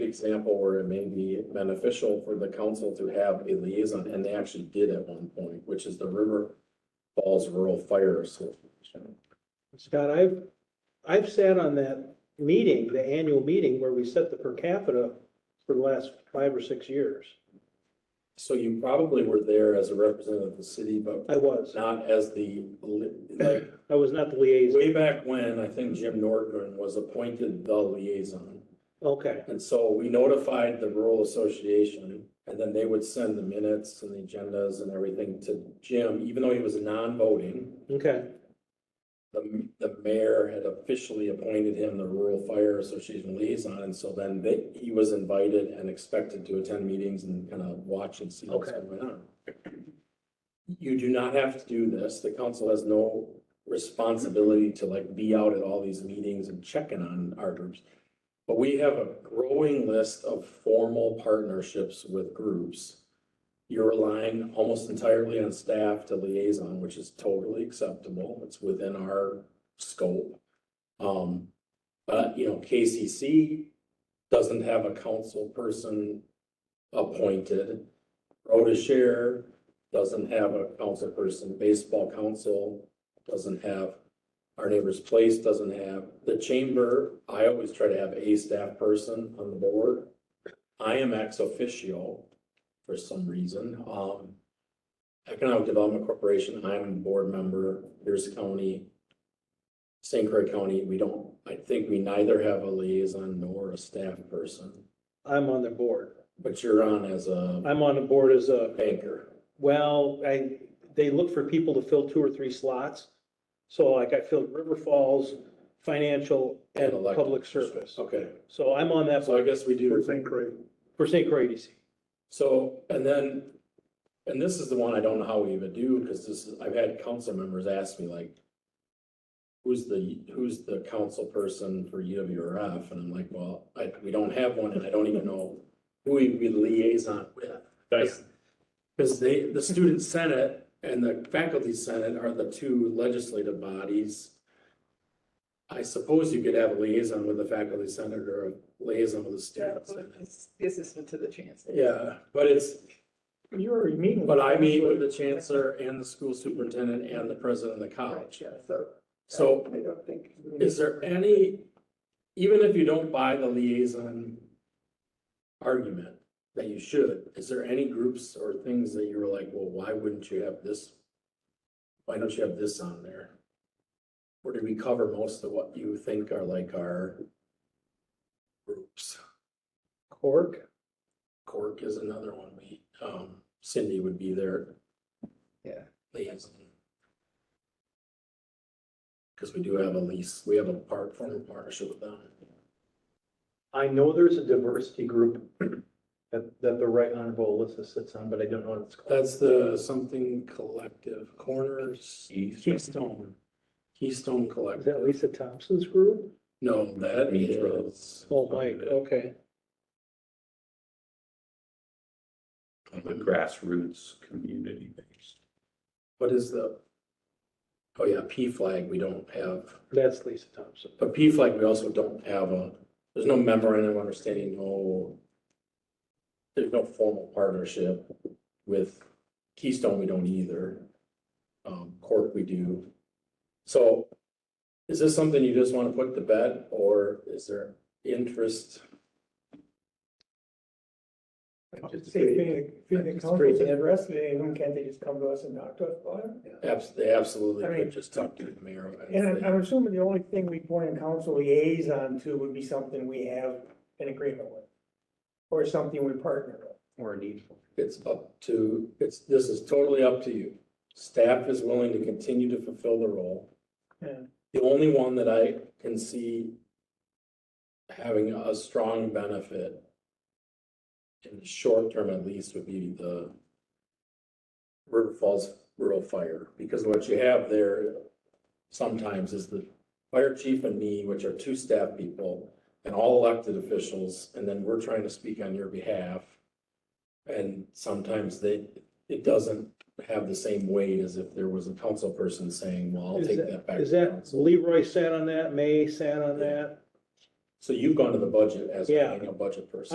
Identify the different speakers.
Speaker 1: example where it may be beneficial for the council to have a liaison, and they actually did at one point, which is the River Falls Rural Fire Association.
Speaker 2: Scott, I've, I've sat on that meeting, the annual meeting where we set the per capita for the last five or six years.
Speaker 1: So you probably were there as a representative of the city, but
Speaker 2: I was,
Speaker 1: not as the, li- like,
Speaker 2: I was not the liaison.
Speaker 1: way back when, I think Jim Norton was appointed the liaison.
Speaker 2: Okay,
Speaker 1: And so we notified the rural association and then they would send the minutes and the agendas and everything to Jim, even though he was non-voting.
Speaker 2: okay,
Speaker 1: The, the mayor had officially appointed him the rural fire association liaison. And so then they, he was invited and expected to attend meetings and kind of watch and see what's
Speaker 2: Okay.
Speaker 1: going on. You do not have to do this. The council has no responsibility to like be out at all these meetings and checking on our groups. But we have a growing list of formal partnerships with groups. You're relying almost entirely on staff to liaison, which is totally acceptable. It's within our scope. Um, but, you know, KCC doesn't have a council person appointed. Road to Share doesn't have a council person. Baseball Council doesn't have our neighbor's place doesn't have, the chamber, I always try to have a staff person on the board. I am ex officio for some reason, um. Economic Development Corporation, I'm a board member, Pierce County. St. Croix County, we don't, I think we neither have a liaison nor a staff person,
Speaker 2: I'm on the board.
Speaker 1: but you're on as a
Speaker 2: I'm on the board as a,
Speaker 1: banker.
Speaker 2: well, I, they look for people to fill two or three slots. So like I filled River Falls, financial and
Speaker 1: elected
Speaker 2: public service.
Speaker 1: Okay,
Speaker 2: So I'm on that
Speaker 1: so I
Speaker 2: board
Speaker 1: guess we do.
Speaker 2: for St. Croix EDC.
Speaker 1: So, and then, and this is the one I don't know how we even do, because this, is- I've had council members ask me like, who's the, who's the council person for E UWRF? And I'm like, well, I, we don't have one, and I don't even know who we we liaison with.
Speaker 3: That's,
Speaker 1: Because they, the student senate and the faculty senate are the two legislative bodies. I suppose you could have a liaison with the faculty senate or a liaison with the
Speaker 4: Yeah,
Speaker 1: student senate.
Speaker 4: it's The assistant to the chancellor.
Speaker 1: Yeah, but it's,
Speaker 3: you already meeting.
Speaker 1: But I meet with the chancellor and the school superintendent and the president of the
Speaker 4: Right,
Speaker 1: college.
Speaker 4: yeah, so.
Speaker 1: So
Speaker 4: I don't think.
Speaker 1: is there any, even if you don't buy the liaison argument that you should, is there any groups or things that you were like, well, why wouldn't you have this? Why don't you have this on there? Or did we cover most of what you think are like our groups?
Speaker 2: Cork,
Speaker 1: Cork is another one. We, um, Cindy would be there.
Speaker 4: Yeah.
Speaker 1: liaison. Because we do have a lease, we have a part, formal partnership with them.
Speaker 3: I know there's a diversity group that, that the right honorable Alyssa sits on, but I don't know what it's called.
Speaker 1: That's the something collective corners. Keystone. Keystone
Speaker 2: is that
Speaker 1: Collective.
Speaker 2: Lisa Thompson's group?
Speaker 1: No, that is.
Speaker 2: Oh, Mike, okay.
Speaker 5: the grassroots community based.
Speaker 1: What is the? Oh yeah, P flag, we don't have,
Speaker 2: That's Lisa Thompson.
Speaker 1: but P flag, we also don't have a, there's no memorandum of understanding, no. There's no formal partnership with Keystone, we don't either. Um, Cork, we do. So is this something you just want to put to bed or is there interest?
Speaker 3: Just-
Speaker 6: Say, being, being the
Speaker 3: Just
Speaker 6: council
Speaker 3: create
Speaker 6: is
Speaker 3: it.
Speaker 6: interested, anyone, can't they just come to us and talk to us about it?
Speaker 1: Abs- They absolutely
Speaker 6: I mean-
Speaker 1: could just talk to the mayor. of it.
Speaker 6: And I'm, I'm assuming the only thing we point a council liaison to would be something we have an agreement with. Or something we partner with.
Speaker 3: Or needful.
Speaker 1: It's up to, it's, this is totally up to you. Staff is willing to continue to fulfill the role.
Speaker 6: Yeah.
Speaker 1: The only one that I can see having a strong benefit in the short term at least would be the River Falls Rural Fire, because what you have there sometimes is the fire chief and me, which are two staff people and all elected officials, and then we're trying to speak on your behalf. And sometimes they, it doesn't have the same weight as if there was a council person saying, well, I'll
Speaker 2: Is
Speaker 1: take
Speaker 2: that-
Speaker 1: that back.
Speaker 2: Is
Speaker 1: to
Speaker 2: that
Speaker 1: council."
Speaker 2: Leroy sat on that, May sat on that?
Speaker 1: So you've gone to the budget as
Speaker 2: Yeah.
Speaker 1: being a budget person.